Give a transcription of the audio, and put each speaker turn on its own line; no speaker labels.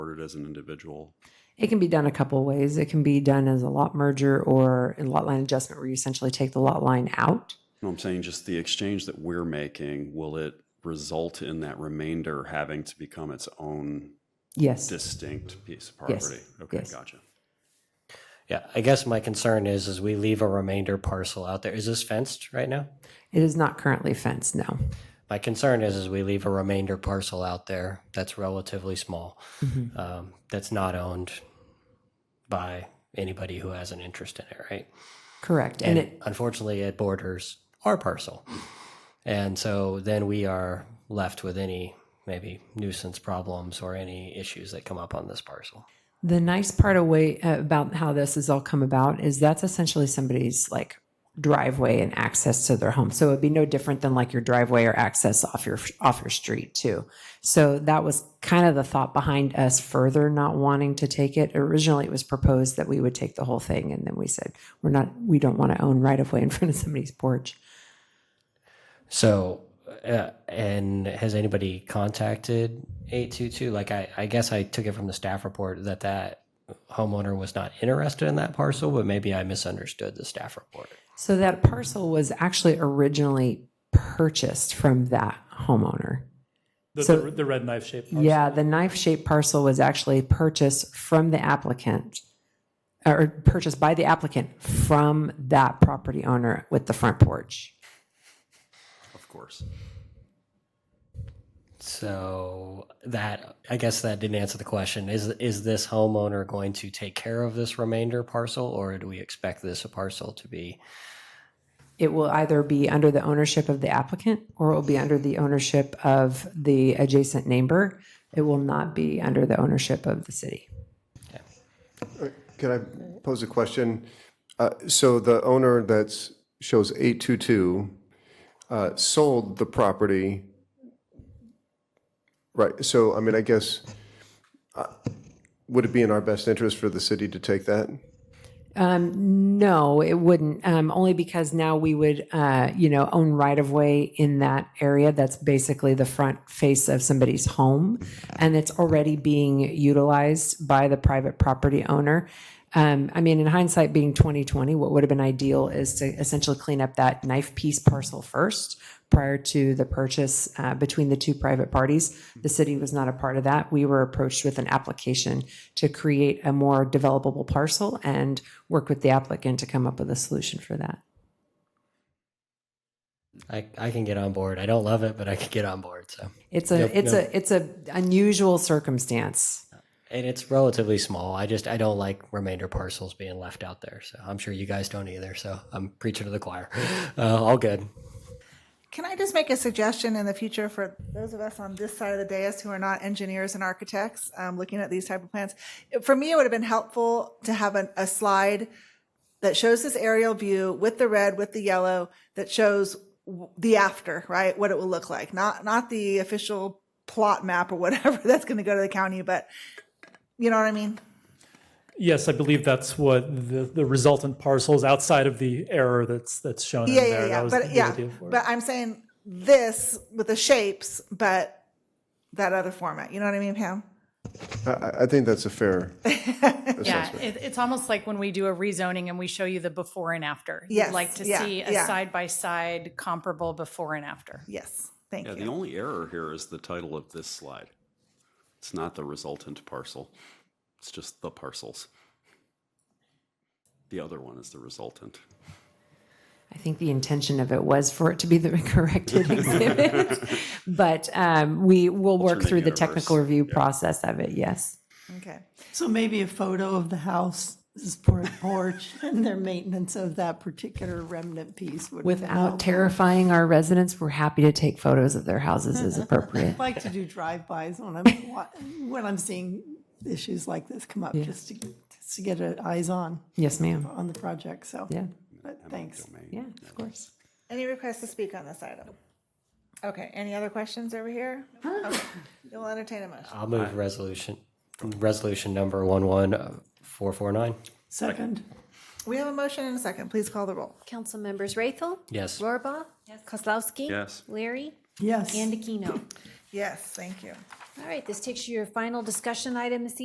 ordered as an individual?
It can be done a couple of ways. It can be done as a lot merger or a lot line adjustment where you essentially take the lot line out.
No, I'm saying just the exchange that we're making, will it result in that remainder having to become its own
Yes.
distinct piece of
Yes.
property? Okay,
Yes.
gotcha.
Yeah, I guess my concern is, is we leave a remainder parcel out there. Is this fenced right now?
It is not currently fenced, no.
My concern is, is we leave a remainder parcel out there that's relatively small, um, that's not owned by anybody who has an interest in it, right?
Correct.
And
And it,
unfortunately, it borders our parcel. And so then we are left with any maybe nuisance problems or any issues that come up on this parcel.
the nice part away about how this has all come about is that's essentially somebody's like driveway and access to their home. So it'd be no different than like your driveway or access off your off your street too. So that was kind of the thought behind us further not wanting to take it. Originally it was proposed that we would take the whole thing and then we said we're not we don't want to own right of way in front of somebody's porch.
So, uh, and has anybody contacted 822? Like, I, I guess I took it from the staff report that that homeowner was not interested in that parcel, but maybe I misunderstood the staff report.
So that parcel was actually originally purchased from that homeowner.
The,
So-
the, the red knife shape.
Yeah, the knife shaped parcel was actually purchased from the applicant or purchased by the applicant from that property owner with the front porch.
Of course.
So that I guess that didn't answer the question. Is is this homeowner going to take care of this remainder parcel, or do we expect this parcel to be?
It will either be under the ownership of the applicant or it will be under the ownership of the adjacent neighbor. It will not be under the ownership of the city.
Can I pose a question? Uh, So the owner that's, shows 822, uh, sold the property, right, so, I mean, I guess, uh, would it be in our best interest for the city to take that?
Um, no, it wouldn't. Um, only because now we would, uh, you know, own right of way in that area. That's basically the front face of somebody's home, and it's already being utilized by the private property owner. Um, I mean, in hindsight, being 2020, what would have been ideal is to essentially clean up that knife piece parcel first prior to the purchase uh, between the two private parties. The city was not a part of that. We were approached with an application to create a more developable parcel and work with the applicant to come up with a solution for that.
I I can get on board. I don't love it, but I can get on board. So
It's a
Yep,
it's
yep.
a it's a unusual circumstance.
and it's relatively small. I just I don't like remainder parcels being left out there. So I'm sure you guys don't either. So I'm preaching to the choir. Uh, all good.
Can I just make a suggestion in the future for those of us on this side of the dais who are not engineers and architects um, looking at these type of plans? For me, it would have been helpful to have an, a slide that shows this aerial view with the red, with the yellow, that shows w- the after, right? What it will look like, not not the official plot map or whatever that's going to go to the county, but you know what I mean.
Yes, I believe that's what the, the resultant parcels outside of the error that's that's shown
Yeah,
in
yeah,
there.
yeah.
That was
But
the
yeah,
idea for it.
but I'm saying this with the shapes, but that other format. You know what I mean, Pam?
I- I, I think that's a fair
Yeah,
assessment.
it, it's almost like when we do a rezoning and we show you the before and after. You'd
Yes,
Like to
yeah,
see a
yeah.
side by side comparable before and after.
Yes. Thank
Yeah,
you.
the only error here is the title of this slide. It's not the resultant parcel. It's just the parcels. The other one is the resultant.
I think the intention of it was for it to be the corrected exhibit, but um, we will work
Alternate
through the
universe.
technical review process of it. Yes.
Okay.
So maybe a photo of the house, this por- porch, and their maintenance of that particular remnant piece would.
Without
help.
terrifying our residents, we're happy to take photos of their houses as appropriate.
I like to do drive-bys when I'm, wa- when I'm seeing issues like this come up, just to, just to get a- eyes on,
Yes, ma'am.
on the project, so.
Yeah.
But thanks.
Yeah, of course.
Any requests to speak on this item? Okay. Any other questions over here? Okay. You'll entertain a motion.
I'll move resolution resolution number one one four four nine.
Second,
We have a motion and a second. Please call the roll.
Council members Raythel?
Yes.
Rohrbaugh? Kozlowski?
Yes.
Larry?
yes.
And Aquino.
Yes, thank you.
All right, this takes you to your final discussion item this